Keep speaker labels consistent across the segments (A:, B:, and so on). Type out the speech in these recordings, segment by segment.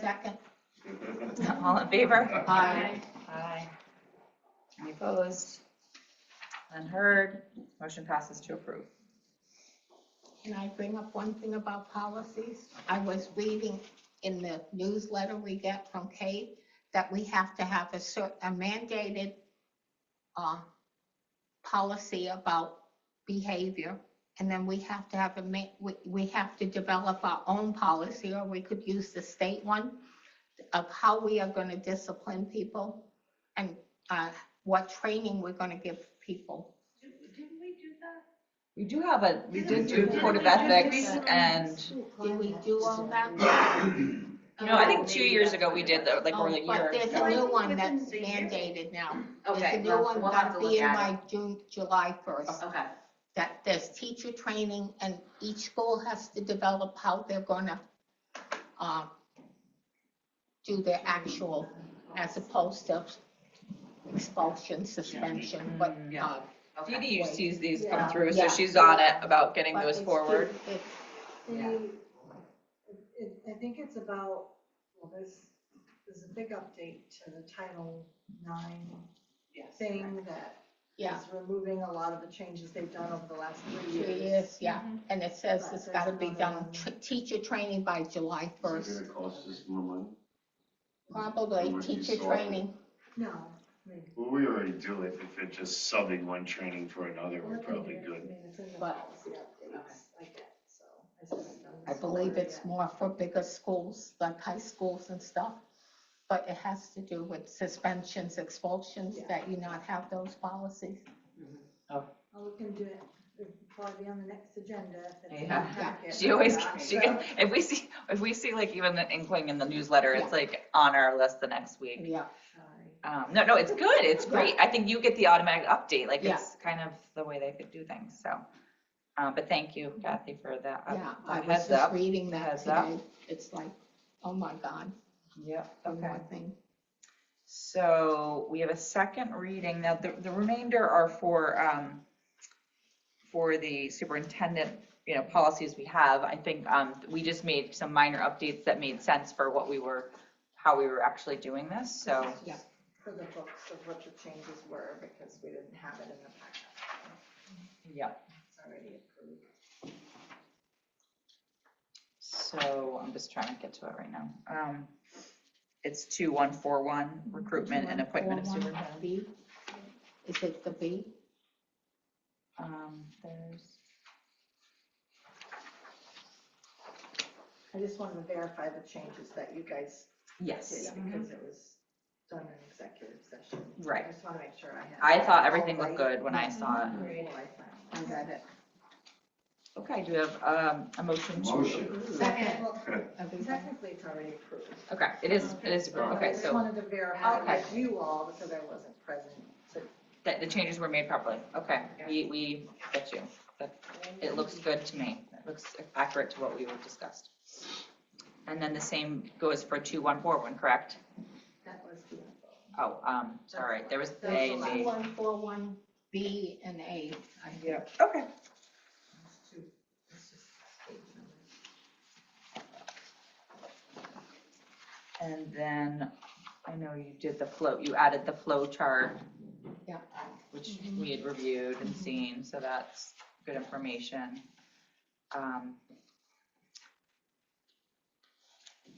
A: second?
B: All in favor?
A: Aye.
B: Aye. Any opposed? Unheard. Motion passes to approve.
A: Can I bring up one thing about policies? I was reading in the newsletter we get from Kate that we have to have a cer, a mandated uh, policy about behavior. And then we have to have a ma, we, we have to develop our own policy, or we could use the state one of how we are gonna discipline people and, uh, what training we're gonna give people.
C: Didn't we do that?
B: We do have a, we did do
C: Didn't we-
B: Code of
C: didn't we do
B: Ethics
C: recently?
B: and,
A: Did we do all that?
B: you know, I think two years ago we did though, like
A: Oh,
B: more than a year.
A: But there's
B: ago.
A: a new one
C: Within
A: that's
C: the year.
A: mandated now. There's a
D: Okay,
A: new
D: we'll,
A: one
D: we'll have
A: gotta
D: to
A: be
D: look
A: in
D: at it.
A: by June, July first.
D: Okay,
A: That there's teacher training and each school has to develop how they're gonna, um, do their actual, as opposed to expulsion, suspension, but,
D: Mm, Yeah.
A: uh.
D: okay.
B: DDU sees these come through,
A: Yeah.
B: so she's on it about getting
A: but
B: those
A: it's
B: forward.
A: two- it's-
D: Yeah.
E: The, it, I think it's about, well, there's, there's a big update to the Title Nine
D: Yes.
E: thing that
A: Yeah,
E: is removing a lot of the changes they've done over the last three
A: it
E: years.
A: is, yeah, and it says it's gotta be
E: But there's
A: done,
E: another-
A: tr- teacher training by July
F: Is
A: first.
F: it gonna cost us more money?
A: Probably
F: Or do you
A: teacher
F: solve it?
A: training.
E: No, I mean,
G: Well, we already do it, if it's just subbing one training for another, we're probably
E: I
G: good.
E: mean, it's in the
A: But-
E: policy updates, I get, so. I said it's done
A: I
E: this
A: believe
E: quarter,
A: it's
E: yeah.
A: more for bigger schools, like high schools and stuff. But it has to do with suspensions, expulsions,
E: Yeah.
A: that you not have those policies.
E: I'll look into it, it'll probably be on the next agenda. if it's in the
D: Yeah.
E: packet.
B: She always,
E: Yeah,
B: she,
E: so-
B: can- if we see, if we see like even an inkling in the newsletter, it's like on our list the next week.
A: Yeah,
E: Sorry.
B: Um, no, no, it's good, it's
A: Yeah.
B: great. I think you get the automatic update, like
A: Yeah.
B: it's kind of the way they could do things, so. Um, but thank you Kathy for that. up-
A: yeah.
B: the
A: I was
B: Heads
A: just
B: up.
A: reading that
B: Heads up.
A: today. It's like, oh my God,
B: Yep,
A: one
B: okay.
A: more thing.
B: So we have a second reading. Now, the, the remainder are for, um, for the superintendent, you know, policies we have. I think, um, we just made some minor updates that made sense for what we were, how we were actually doing this, so.
A: Yeah.
E: For the books of what the changes were, because we didn't have it in the packet.
B: Yeah.
E: It's already approved.
B: So I'm just trying to get to it right now. Um, it's two one four one, recruitment and appointment of
A: 2141
B: superintendent.
A: B. Is it the B?
B: Um, there's,
E: I just wanted to verify the changes that you guys did,
B: yes,
E: because it was done in executive session. I
B: right.
E: just want to make sure I had.
B: I thought
E: it
B: everything
E: all
B: looked
E: right
B: good when I saw it.
E: before I signed.
A: I read it.
B: Okay, do you have, um, a motion to?
F: Motion.
A: Second.
E: Well,
A: Everybody?
E: Technically, it's already approved.
B: Okay, it is, it is, approved.
E: I
B: okay,
E: just
B: so
E: wanted to verify
B: Okay.
E: with you all, because I wasn't present. So
B: that the changes were made properly. Okay, we, we get you. That- It looks good to me. It looks accurate to what we were discussed. And then the same goes for two one four one, correct?
E: That was the.
B: Oh, um, sorry, there was the A
E: That's
B: and
E: the
B: B.
A: 2141 B and A. I think.
B: Yep, okay.
E: it's two- it's just page numbers.
B: And then, I know you did the flow, you added the flow chart.
A: Yeah.
B: Which we had reviewed and seen, so that's good information. Um,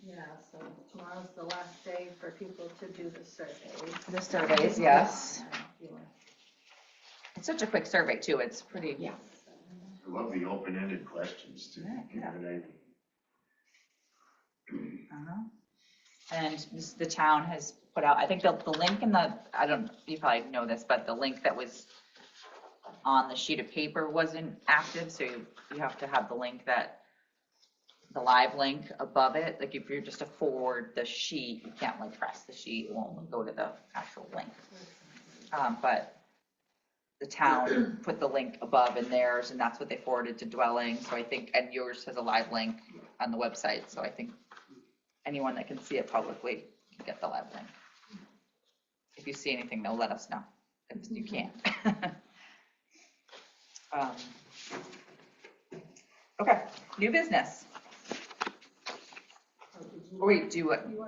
E: Yeah, so tomorrow's the last day for people to do the surveys.
B: the surveys, yes.
E: You want
B: It's such a quick survey too, it's pretty.
A: Yeah.
G: I love the open-ended questions too.
B: Yeah,
G: You know what I mean?
B: Uh-huh. And this- the town has put out, I think the, the link in the, I don't, you probably know this, but the link that was on the sheet of paper wasn't active, so you, you have to have the link that, the live link above it, like if you're just to forward the sheet, you can't like press the sheet, it won't go to the actual link. Um, but the town put the link above in theirs, and that's what they forwarded to dwelling, so I think, and yours has a live link on the website, so I think anyone that can see it publicly can get the live link. If you see anything, though, let us know if you can't. Um, Okay, new business.
E: Oh, did you
H: Or you do it,
B: You want